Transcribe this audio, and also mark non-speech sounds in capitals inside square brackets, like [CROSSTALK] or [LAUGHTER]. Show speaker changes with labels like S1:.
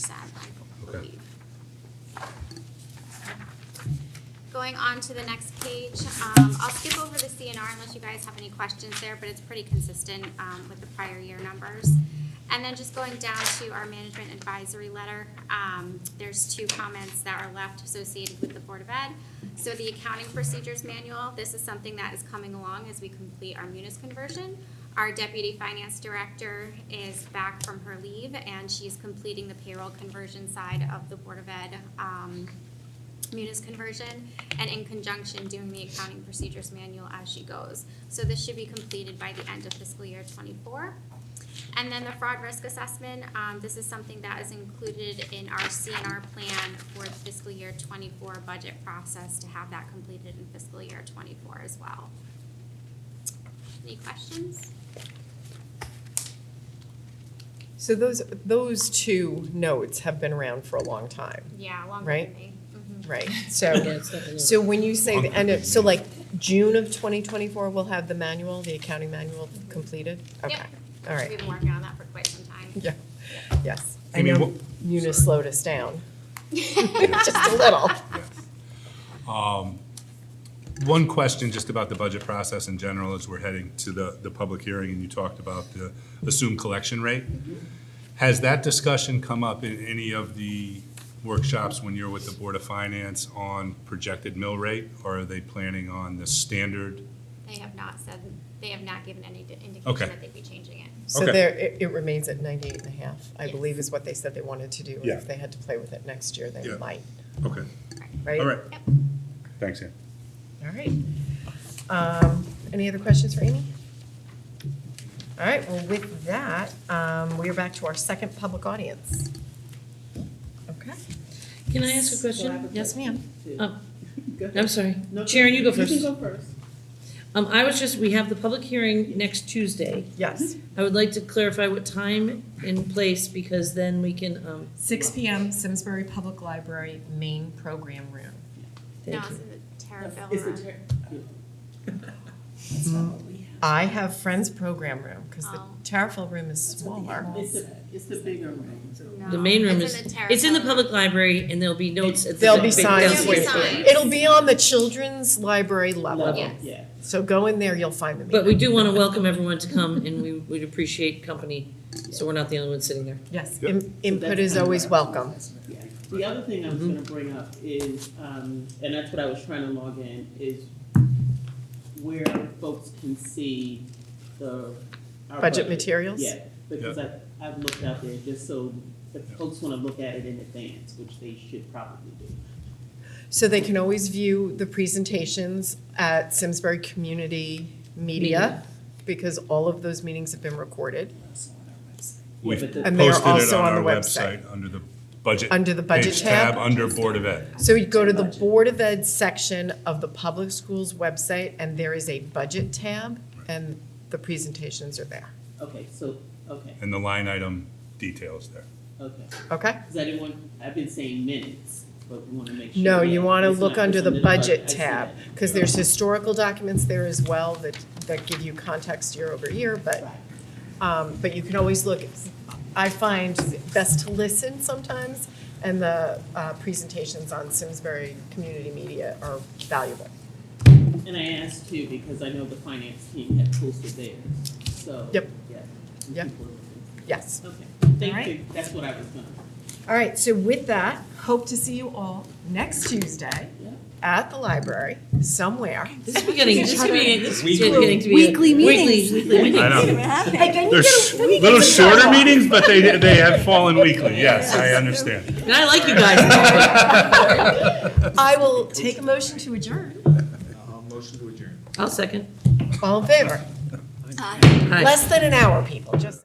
S1: believe. Going on to the next page, um, I'll skip over the CNR unless you guys have any questions there, but it's pretty consistent, um, with the prior year numbers. And then just going down to our management advisory letter, um, there's two comments that are left associated with the Board of Ed. So the accounting procedures manual, this is something that is coming along as we complete our munis conversion. Our deputy finance director is back from her leave, and she's completing the payroll conversion side of the Board of Ed, um, munis conversion and in conjunction doing the accounting procedures manual as she goes. So this should be completed by the end of fiscal year twenty-four. And then the fraud risk assessment, um, this is something that is included in our CNR plan for the fiscal year twenty-four budget process to have that completed in fiscal year twenty-four as well. Any questions?
S2: So those, those two notes have been around for a long time,
S1: Yeah, longer
S2: Right.
S1: than me. Mhm.
S2: right? So,
S3: it's definitely-
S2: so when you say the end of, so like June of 2024, we'll have the manual, the accounting manual completed?
S1: Yep.
S2: Okay, all right,
S1: We've [LAUGHS] been working on that for quite some time.
S2: yeah, yes. I
S4: Amy,
S2: know
S4: what-
S2: Munis
S4: sorry.
S2: slowed us down, [LAUGHS] just a little.
S4: Um, One question just about the budget process in general as we're heading to the, the public hearing, and you talked about the assumed collection rate. Has that discussion come up in any of the workshops when you're with the Board of Finance on projected mill rate? Or are they planning on the standard?
S1: They have not said, they have not given any indication
S4: Okay.
S1: that they'd be changing it.
S2: So
S4: Okay.
S2: there, it, it remains at 98 and a half, I
S1: Yes.
S2: believe is what they said they wanted to do. and
S4: Yeah.
S2: If they had to play with it next year, they
S4: Yeah.
S2: might,
S4: Okay,
S2: right?
S4: all right.
S1: Yep.
S4: Thanks, Ann.
S2: All right. Um, Any other questions for Amy? All right, well, with that, um, we are back to our second public audience. Okay.
S3: Can I ask a
S5: Well, I have
S3: question?
S5: a
S3: Yes, ma'am. Oh,
S5: Go ahead.
S3: I'm sorry.
S5: No,
S3: Sharon, you go
S5: You
S3: first.
S5: can go first.
S3: Um, I was just, we have the public hearing next Tuesday.
S2: Yes,
S3: I would like to clarify what time and place because then we can, um,
S2: six PM, Simsbury Public Library Main Program Room.
S1: No,
S3: thank
S1: it's
S3: you.
S1: in the Terraville
S5: It's
S1: Room.
S5: the turn. That's not what we
S2: I have Friends Program Room, because the
S1: Oh.
S2: Tarryful Room is smaller.
S5: have. It's the, it's the bigger room.
S3: The main room
S1: It's
S3: is,
S1: in
S3: it's in the
S1: Terraville
S3: public library and there'll be notes at the.
S2: There'll be
S3: big
S2: signs
S3: desk.
S1: There'll be
S2: waiting.
S1: signs.
S2: It'll be on the children's library level.
S1: Yes.
S5: Yeah.
S2: So go in there, you'll find the
S3: But
S2: meeting.
S3: we do want to welcome everyone to come and we would appreciate company, so we're not the only ones sitting there.
S2: Yes,
S4: Yep.
S2: in-
S5: So
S2: input
S5: that's
S2: is
S5: kind of
S2: always
S5: our
S2: welcome.
S5: assessment, yeah. The other thing I was gonna bring up is, um, and that's what I was trying to log in, is where folks can see the. our
S2: Budget materials?
S5: Yeah, because I, I've looked out there just so if folks wanna look at it in advance, which they should probably do.
S2: So they can always view the presentations at Simsbury Community Media,
S3: Media.
S2: because all of those meetings have been recorded.
S4: We've
S5: but the-
S2: And they are
S4: posted it
S2: also on
S4: our
S2: the website.
S4: Under the budget.
S2: Under the budget
S4: page
S2: tab.
S4: Under Board of Ed.
S2: So you go to the Board of Ed section of the public schools website, and there is a budget tab, and the presentations are there,
S5: Okay, so, okay,
S4: And the line item details there.
S5: okay.
S2: okay?
S5: Because I didn't want, I've been saying minutes, but we want to make sure.
S2: No,
S5: that
S2: you want to
S5: it's
S2: look
S5: not
S2: under
S5: just
S2: the budget
S5: I see
S2: tab,
S5: that.
S2: because there's historical documents there as well that, that give you context year over year, but
S5: Right.
S2: Um, but you can always look, I find best to listen sometimes, and the, uh, presentations on Simsbury Community Media are valuable.
S5: And I asked too, because I know the finance team had posted theirs, so.
S2: Yep.
S5: Yeah. and
S2: Yep.
S5: people were-
S2: Yes.
S5: Okay,
S2: All right.
S5: thank you, that's what I was gonna.
S2: All right, so with that, hope to see you all next Tuesday
S5: Yeah.
S2: at the library, somewhere.
S3: This is beginning, this is beginning, this is
S4: Weekly.
S3: getting to be. a-
S6: Weekly meetings.
S3: Weekly, weekly meetings.
S4: I know.
S6: Hey, can you
S4: They're
S6: get
S4: sh-
S6: a- we get
S4: little
S6: a-
S4: shorter meetings, but they, they have fallen weekly, yes, I understand.
S3: And I like you guys.
S2: I will take a motion to adjourn.
S7: Uh, Motion to adjourn.
S3: I'll second.
S2: All in favor?
S1: Aye.
S3: Hi.
S2: Less than an hour, people, just.